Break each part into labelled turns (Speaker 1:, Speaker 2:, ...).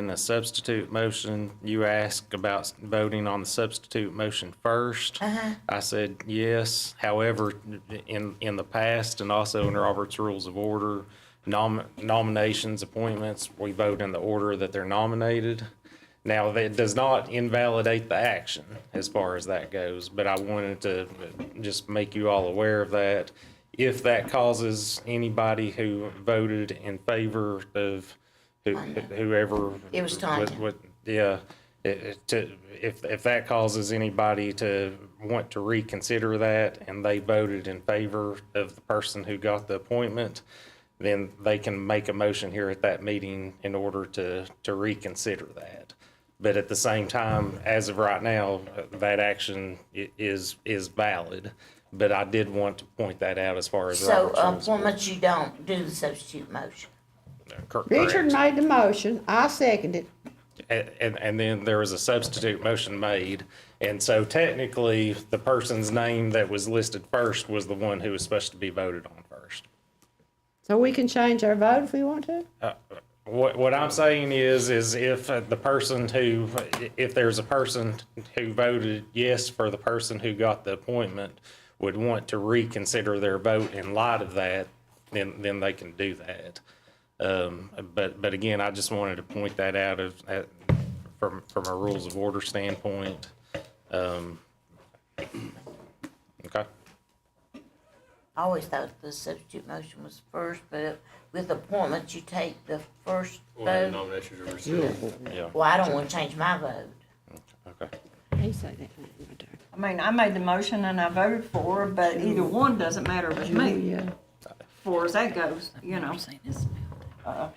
Speaker 1: In the substitute motion, you asked about voting on the substitute motion 1st I said yes. However, in, in the past and also in Robert's Rules of Order, nom- nominations, appointments, we vote in the order that they're nominated. Now, that does not invalidate the action as far as that goes, but I wanted to just make you all aware of that. If that causes anybody who voted in favor of who- whoever.
Speaker 2: It was Tanya.
Speaker 1: what- what- Yeah, it- it- to, if, if that causes anybody to want to reconsider that and they voted in favor of the person who got the appointment, then they can make a motion here at that meeting in order to, to reconsider that. But at the same time, as of right now, uh, that action i- is, is valid. But I did want to point that out as far as
Speaker 2: So,
Speaker 1: Robert's
Speaker 2: uh,
Speaker 1: rules.
Speaker 2: for much you don't do the substitute motion.
Speaker 1: Cor-
Speaker 3: Richard
Speaker 1: correct.
Speaker 3: made the motion, I seconded.
Speaker 1: A- And, and then there was a substitute motion made. And so technically, the person's name that was listed first was the one who was supposed to be voted on first.
Speaker 3: So we can change our vote if we want to?
Speaker 1: What, what I'm saying is, is if uh, the person who, if there's a person who voted yes for the person who got the appointment would want to reconsider their vote in light of that, then, then they can do that. Um, but, but again, I just wanted to point that out of, at, from, from a rules of order standpoint. Um, okay,
Speaker 2: I always thought the substitute motion was first, but with appointments, you take the first
Speaker 4: Well,
Speaker 2: vote.
Speaker 4: nominations are received.
Speaker 1: yeah,
Speaker 2: Well, I don't wanna change my vote.
Speaker 1: okay.
Speaker 3: He said that thing right there.
Speaker 5: I mean, I made the motion and I voted for, her, but either one doesn't matter with me,
Speaker 3: Oh, Yeah.
Speaker 5: far as that goes, you know. Uh,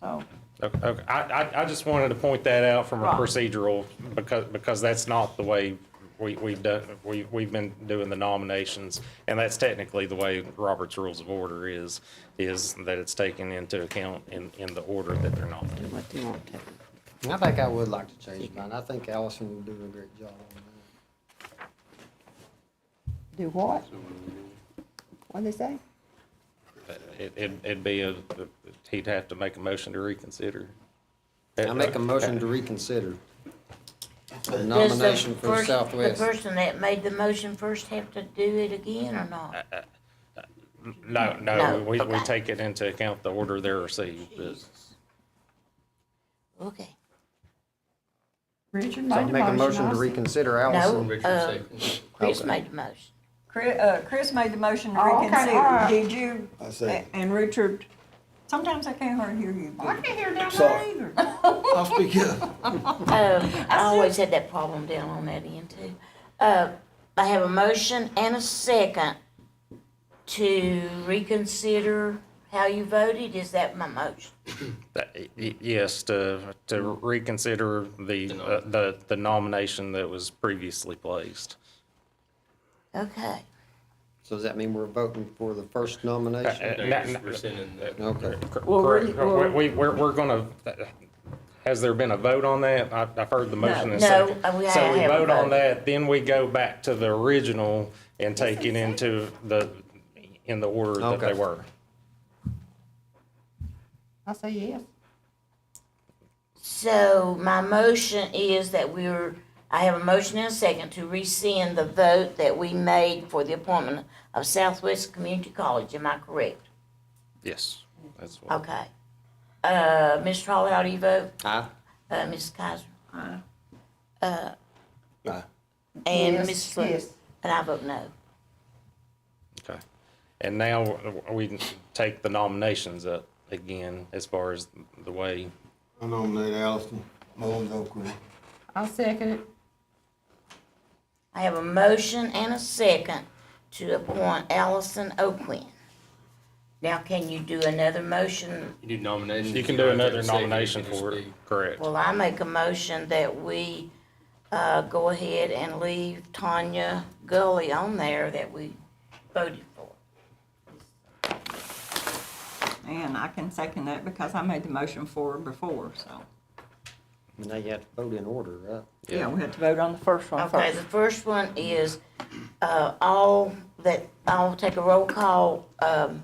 Speaker 5: So,
Speaker 1: Okay, okay. I, I, I just wanted to point that out from a
Speaker 5: Right.
Speaker 1: procedural, because, because that's not the way we, we've done, we, we've been doing the nominations. And that's technically the way Robert's Rules of Order is, is that it's taken into account in, in the order that they're nominated.
Speaker 3: Do what they want to.
Speaker 6: I think I would like to change mine. I think Allison will do a great job on that.
Speaker 3: Do what? What'd they say?
Speaker 1: But It, it- it'd be a, he'd have to make a motion to reconsider.
Speaker 6: I make a
Speaker 1: uh,
Speaker 6: motion to reconsider the
Speaker 2: Does the
Speaker 6: nomination for
Speaker 2: first-
Speaker 6: Southwest.
Speaker 2: The person that made the motion first have to do it again or not?
Speaker 1: No, no,
Speaker 2: No,
Speaker 1: we, we
Speaker 2: okay.
Speaker 1: take it into account the order they're received.
Speaker 2: Jesus. Okay.
Speaker 3: Richard
Speaker 6: So I
Speaker 3: made the
Speaker 6: make a motion to
Speaker 3: motion,
Speaker 6: reconsider
Speaker 2: No,
Speaker 6: Allison.
Speaker 2: uh,
Speaker 4: Richard second.
Speaker 2: Chris
Speaker 6: Okay.
Speaker 2: made the motion.
Speaker 5: Chris, uh, Chris made the motion to
Speaker 3: Oh, okay, all
Speaker 5: reconsider.
Speaker 3: right.
Speaker 5: Did you?
Speaker 7: I second.
Speaker 5: And Richard, sometimes I can't hardly hear you.
Speaker 3: I can't hear down there
Speaker 7: Sorry.
Speaker 3: either.
Speaker 7: I'll speak up.
Speaker 2: Oh, I always had that problem down on that end too. Uh, I have a motion and a second to reconsider how you voted. Is that my motion?
Speaker 1: That- y- Yes, to, to reconsider the, uh, the, the nomination that was previously placed.
Speaker 2: Okay.
Speaker 6: So does that mean we're voting for the first nomination?
Speaker 1: Uh,
Speaker 4: No,
Speaker 1: no,
Speaker 4: you're
Speaker 1: no.
Speaker 4: rescinding that.
Speaker 6: Okay.
Speaker 1: Cor-
Speaker 5: Well,
Speaker 1: Correct.
Speaker 5: we- well-
Speaker 1: We, we- we're, we're gonna, has there been a vote on that? I, I've heard the motion and
Speaker 2: No,
Speaker 1: second.
Speaker 2: uh, we
Speaker 1: So we
Speaker 2: haven't
Speaker 1: vote on
Speaker 2: voted.
Speaker 1: that, then we go back to the original and take it into the, in the order that they
Speaker 6: Okay.
Speaker 1: were.
Speaker 3: I say yes.
Speaker 2: So my motion is that we're, I have a motion and a second to rescind the vote that we made for the appointment of Southwest Community College. Am I correct?
Speaker 1: Yes. That's what,
Speaker 2: Okay. Uh, Ms. Trolley, how do you vote?
Speaker 6: Aye.
Speaker 2: Uh, Ms. Kaiser?
Speaker 5: Aye.
Speaker 7: Aye.
Speaker 2: And
Speaker 3: Yes,
Speaker 2: Ms. Slough?
Speaker 3: yes.
Speaker 2: And I vote no.
Speaker 1: okay. And now w- we can take the nominations up again as far as the way.
Speaker 7: I nominate Allison Mullins Oakley.
Speaker 3: I second it.
Speaker 2: I have a motion and a second to appoint Allison O'Quinn. Now, can you do another motion?
Speaker 4: You do nominations.
Speaker 1: You can
Speaker 4: don't
Speaker 1: do
Speaker 4: have to have
Speaker 1: another
Speaker 4: a second, you
Speaker 1: nomination
Speaker 4: can just
Speaker 1: for it,
Speaker 4: speak.
Speaker 1: correct.
Speaker 2: Well, I make a motion that we, uh, go ahead and leave Tanya Gully on there that we voted for.
Speaker 5: And I can second that because I made the motion for her before, so.
Speaker 6: Now you have to vote in order, right?
Speaker 5: Yeah, we had to vote on the first one
Speaker 2: Okay,
Speaker 5: first.
Speaker 2: the first one is, uh, all that, I'll take a roll call, um,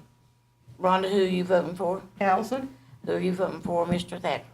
Speaker 2: Rhonda, who you voting for?
Speaker 3: Allison?
Speaker 2: Who are you voting for, Mr. Thacker?